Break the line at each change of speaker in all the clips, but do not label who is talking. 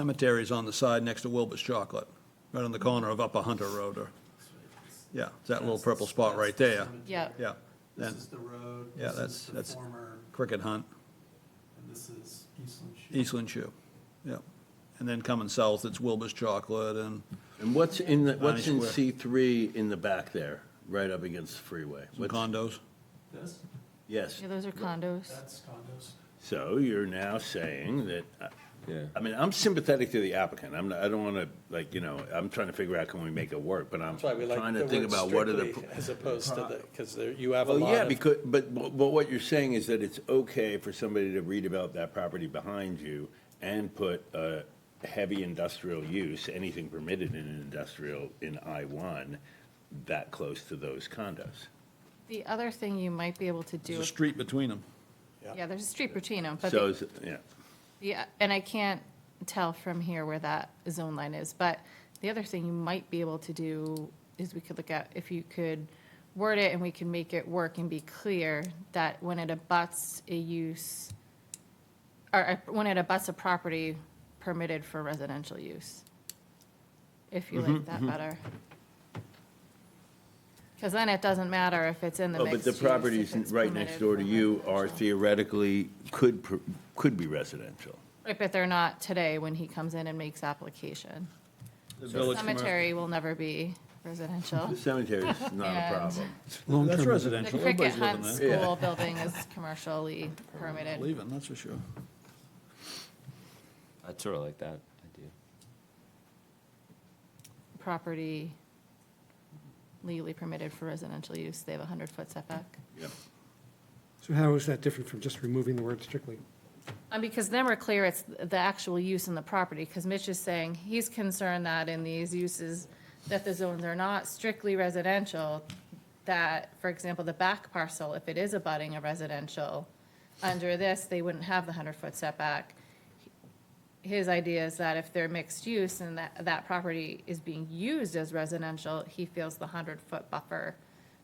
Cemetery's on the side next to Wilbur's Chocolate, right on the corner of Upper Hunter Road or, yeah, it's that little purple spot right there.
Yeah.
Yeah,
This
then
is the road.
Yeah,
this
that's-
is
that's-
The former,
Cricket Hunt,
and this is Eastland Shoe.
Eastland Shoe, yeah. And then coming south, it's Wilbur's Chocolate and
And what's in, the- what's in
Square.
C three in the back there, right up against the freeway?
some
What's-
condos.
This,
Yes,
Yeah, those are condos.
that's condos.
so you're now saying that, uh,
Yeah.
I mean, I'm sympathetic to the applicant, I'm, not- I don't wanna, like, you know, I'm trying to figure out can we make it work, but I'm
That's why we like
trying to
the
think
word
about what are the.
strictly
pro-
as opposed to the, because you have a
Well,
lot
yeah,
of-
because, but, but what you're saying is that it's okay for somebody to redevelop that property behind you and put a heavy industrial use, anything permitted in an industrial in I one, that close to those condos.
The other thing you might be able to
There's
do,
a street between them.
yeah, there's a street between them, but,
So,
the-
is it- yeah,
yeah, and I can't tell from here where that zone line is, but the other thing you might be able to do is we could look at, if you could word it and we can make it work and be clear that when it abuts a use, or uh, when it abuts a property permitted for residential use, if you
Mm-hmm,
like that better. Because then it doesn't matter if it's in the
oh,
mixed use.
but the
if
properties
it's
right
permitted
next door to
for
you are
residential.
theoretically, could, per- could be residential.
Right, but they're not today when he comes in and makes application.
The
The
village commer-
Cemetery will never be residential.
The cemetery is not
And-
a problem.
That's
The
residential,
Cricket
everybody's
Hunt
living there.
there.
School building is commercially permitted.
Leaving, that's for sure.
I sort of like that idea.
Property legally permitted for residential use. They have a 100-foot setback.
Yeah.
So how is that different from just removing the word strictly?
Um, because then we're clear it's the actual use in the property, because Mitch is saying he's concerned that in these uses, that the zones are not strictly residential, that, for example, the back parcel, if it is abutting a residential, under this, they wouldn't have the hundred-foot setback. His idea is that if they're mixed use and that, that property is being used as residential, he feels the hundred-foot buffer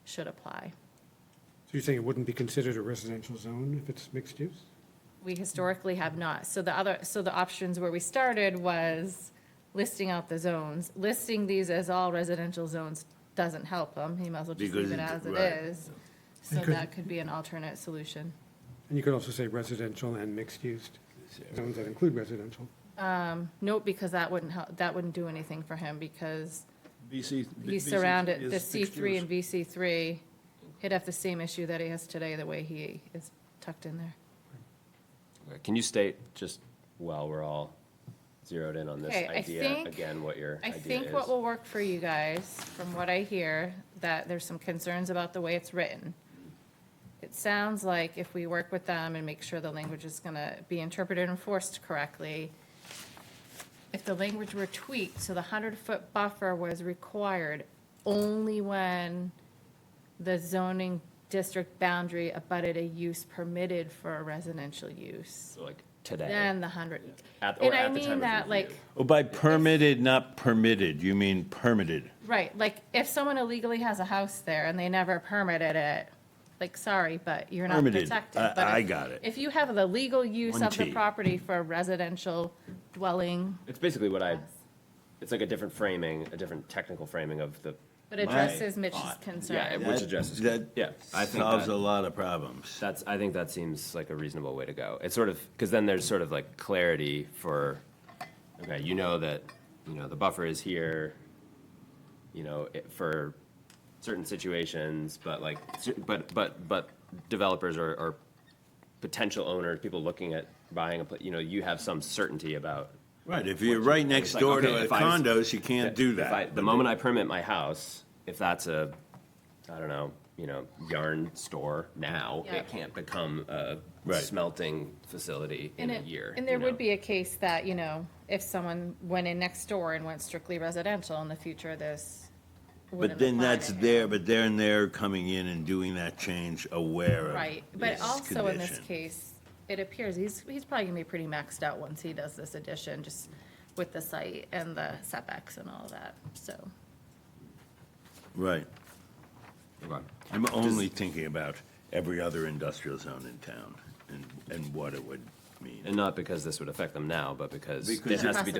should apply.
So you're saying it wouldn't be considered a residential zone if it's mixed use?
We historically have not. So the other, so the options where we started was listing out the zones. Listing these as all residential zones doesn't help them. He might as well just leave
Because
it
it-
as it
right.
is. So that could be an alternate solution.
And you could also say residential and mixed use zones that include residential.
Nope, because that wouldn't help, that wouldn't do anything for him because
VC.
he's
VC
surrounded, the
is
C three
excused.
and VC three, he'd have the same issue that he has today, the way he is tucked in there.
Okay, Can you state, just while we're all zeroed in on this
Okay, I
idea,
think-
again, what your
I
idea is?
think what will work for you guys, from what I hear, that there's some concerns about the way it's written. It sounds like if we work with them and make sure the language is gonna be interpreted and enforced correctly, if the language were tweaked, so the hundred-foot buffer was required only when the zoning district boundary abutted a use permitted for a residential use,
So, Like today,
then the hundred.
At- or
And I
at the time
mean
of
that, like,
review.
Oh, by permitted, not permitted, you mean permitted.
Right, like, if someone illegally has a house there and they never permitted it, like, sorry, but you're not
Permitted.
protected.
I-
But
I
if-
got it.
If you have the legal use
One
of the
T.
property for a residential dwelling,
it's basically what I, it's like a different framing, a different technical framing of the,
but addresses Mitch's
yeah,
concern.
which addresses.
That-
Yeah, I think
Solves
that-
a lot of problems.
That's, I think that seems like a reasonable way to go. It's sort of, because then there's sort of like clarity for, okay, you know that, you know, the buffer is here, you know, it- for certain situations, but like, but, but, but developers or, or potential owners, people looking at buying a, pla- you know, you have some certainty about.
Right, if you're right next
It's like,
door
okay,
to a
if I was-
condos, you can't do
If I-
that.
The moment I permit my house, if that's a, I don't know, you know, yarn store now,
Yeah.
it can't become a
Right.
smelting facility in
And
a
it-
year.
And there
you know?
would be a case that, you know, if someone went in next door and went strictly residential, in the future, this wouldn't
But then
apply
that's
to him.
there, but they're and they're coming in and doing that change aware of
Right, but
this
also in this
condition.
case, it appears he's, he's probably gonna be pretty maxed out once he does this addition, just with the site and the setbacks and all that, so.
Right.
Okay.
I'm only thinking about every other industrial zone in town and, and what it would mean.
And not because this would affect them now, but because
Because
it
it-
has to be